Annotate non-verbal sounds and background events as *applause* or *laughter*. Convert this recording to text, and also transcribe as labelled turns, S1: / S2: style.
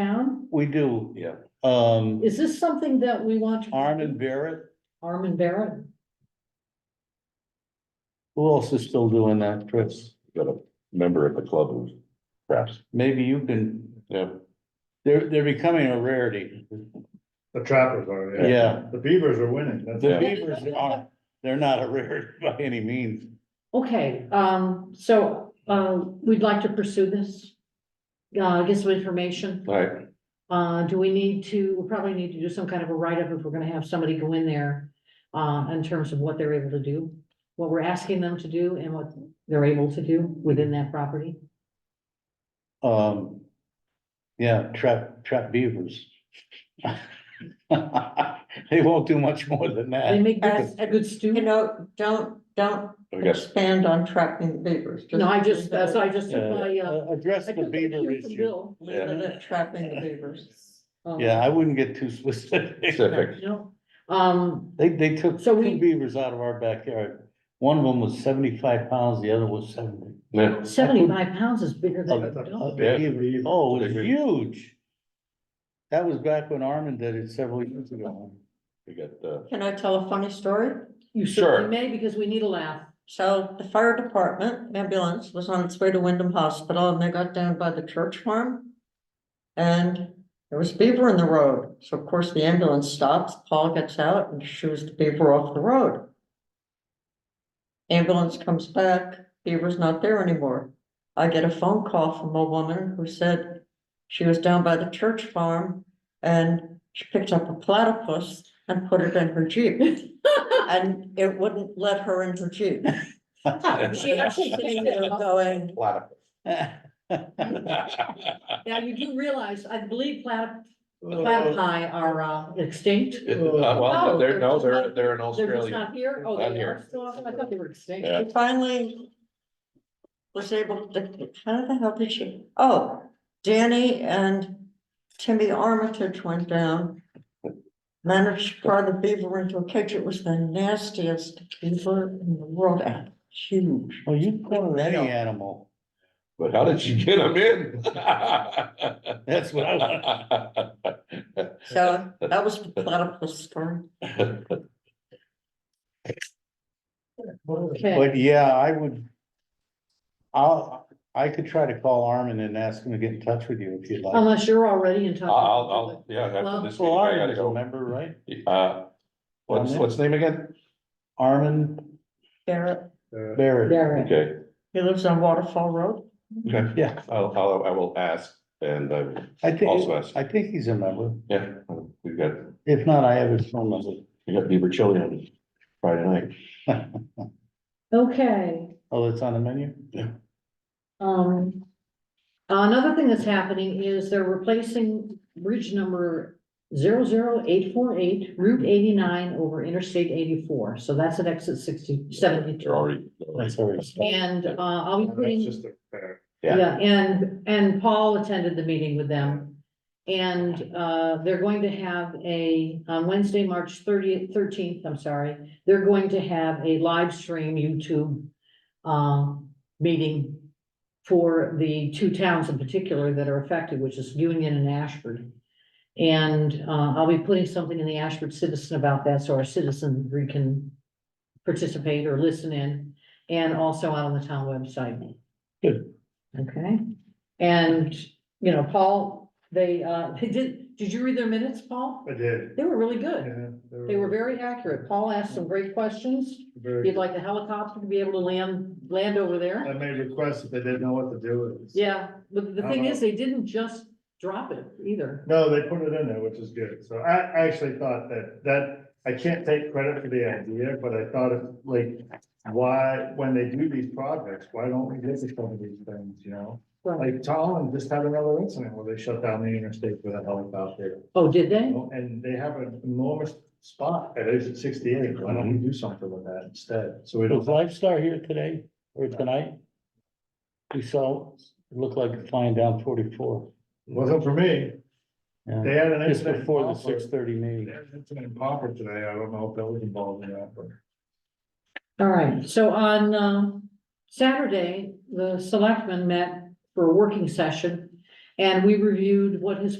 S1: town?
S2: We do.
S3: Yeah.
S2: Um,
S1: Is this something that we want? to
S2: Armin Barrett,
S1: Armin Barrett?
S2: who else is still doing that, Chris?
S3: got a member of the club who's
S2: *laughs*
S3: perhaps,
S2: Maybe you can,
S3: yeah,
S2: they're, they're becoming a rarity.
S4: The trappers are, yeah.
S2: Yeah,
S4: The beavers are winning, that's.
S2: the
S3: Yeah.
S2: Beavers are, they're not a rarity *laughs* by any means.
S1: Okay, um, so, uh, we'd like to pursue this. Uh, get some information.
S3: all right,
S1: Uh, do we need to, we probably need to do some kind of a write-up if we're gonna have somebody go in there. Uh, in terms of what they're able to do, what we're asking them to do and what they're able to do within that property.
S2: Um, yeah, trap, trap beavers. *laughs* They won't do much more than
S1: They
S2: that.
S1: make good- a good stew.
S5: You know, don't, don't
S3: I guess,
S5: expand on trapping the beavers.
S1: No, I just, that's, I just took my, uh.
S2: Uh, Address
S1: I
S2: the
S1: took my
S2: beaver
S1: cue from
S2: issue.
S1: Bill.
S5: Leave it at Trapping the beavers.
S1: Um,
S2: Yeah, I wouldn't get too *laughs* specific.
S3: specific,
S1: No, um,
S2: They, they took
S1: So
S2: two
S1: we-
S2: beavers out of our backyard. One of them was seventy-five pounds, the other was seventy.
S3: yeah,
S1: seventy-five pounds is bigger than a
S4: That's a-
S1: dog.
S4: a big beaver.
S2: Oh, it was
S3: Bigger.
S2: huge. That was back when Armin did it several years *laughs* ago.
S3: we got, uh,
S5: Can I tell a funny story?
S1: You
S3: Sure.
S1: certainly may, because we need a laugh.
S5: So the fire department ambulance was on its way to Wyndham Hospital and they got down by the church farm. And there was beaver in the road. So of course the ambulance stops, Paul gets out and shoos the beaver off the road. Ambulance comes back, beaver's not there anymore. I get a phone call from a woman who said she was down by the church farm and she picked up a platypus and put it in her Jeep. *laughs* And it wouldn't let her in her Jeep. She actually sitting there going,
S2: *laughs*
S3: platypus. Uh,
S1: Now, you do realize, I believe plat, platypi are uh, extinct.
S3: It- uh, Well, they're, no, they're, they're in
S1: Oh, They're just
S3: Australia,
S1: not here. Oh,
S3: Not
S1: they
S3: here.
S1: are still, I thought they were extinct.
S3: Yeah.
S5: she finally was able to, how the hell did she? Oh, Danny and Timmy Armitage went down. Managed to pry the beaver into a cage. It was the nastiest beaver in the world and huge.
S2: Well, you call it any
S5: Yeah.
S2: animal.
S3: but how did you get them in?
S2: *laughs* That's what I want.
S5: So that was the platypus story.
S1: Okay,
S2: But yeah, I would. I'll, I could try to call Armin and ask him to get in touch with you if you'd like.
S1: unless you're already in touch.
S3: *laughs* I'll, I'll, yeah,
S1: Well-
S3: after this
S2: Well,
S3: meeting, I
S2: Armin
S3: gotta
S2: is a
S3: go.
S2: member, right?
S3: Uh, what's, what's the name again?
S2: Armin
S5: Garrett,
S4: Uh,
S2: Barrett.
S1: Barrett.
S3: Okay,
S5: he lives on Waterfall Road.
S3: okay,
S2: Yeah,
S3: I'll, I'll, I will ask, and I, will-
S2: I think,
S3: also ask,
S2: I think he's a member.
S3: yeah, we've got,
S2: If not, I have his phone number.
S3: we got Beaver Chili on Friday night.
S1: Okay.
S2: Oh, it's on the menu?
S1: Um, another thing that's happening is they're replacing bridge number 00848 Route eighty-nine over Interstate eighty-four, so that's at exit 60 72.
S3: They're already.
S2: That's all right.
S1: And, uh, I'll be
S4: That's
S1: putting,
S4: just a fair.
S3: yeah.
S1: yeah, and, and Paul attended the meeting with them. And, uh, they're going to have a, on Wednesday, March thirtieth, thirteenth, I'm sorry, they're going to have a live stream YouTube um, meeting for the two towns in particular that are affected, which is Union and Ashford. And, uh, I'll be putting something in the Ashford Citizen about that, so our citizenry can participate or listen in, and also out on the town website.
S2: Good.
S1: Okay, and, you know, Paul, they, uh, *laughs* they did, did you read their minutes, Paul?
S4: I did.
S1: They were really
S4: Yeah,
S1: good. They were very accurate. Paul asked some great questions.
S4: very
S1: You'd
S4: good.
S1: like the helicopter to be able to land, land over
S4: I
S1: there?
S4: made requests that they didn't know what to do with it.
S1: Yeah, but the thing is, they didn't just drop it either.
S4: No, they put it in there, which is good. So I, I actually thought that, that, I can't take credit for the idea, but I thought it, like, why, when they do these projects, why don't we visit some of these things, you know?
S1: Right.
S4: Like Tallinn just had another incident where they shut down the interstate with a helicopter.
S1: Oh, did
S4: you
S1: they?
S4: know, And they have an enormous spot at exit sixty-eight. Why don't we do something with that instead? So we
S2: Was
S4: don't.
S2: Live Star here today or tonight? We saw, it looked like it flying down forty-four.
S4: Wasn't for me.
S2: Yeah.
S4: They had an
S2: Just
S4: incident. in
S2: before the
S4: Poplar.
S2: six thirty
S4: They
S2: meeting.
S4: had an incident in Popper today. I don't know if that was involved in that, but.
S1: All right, so on, um, Saturday, the selectmen met for a working session. And we reviewed what his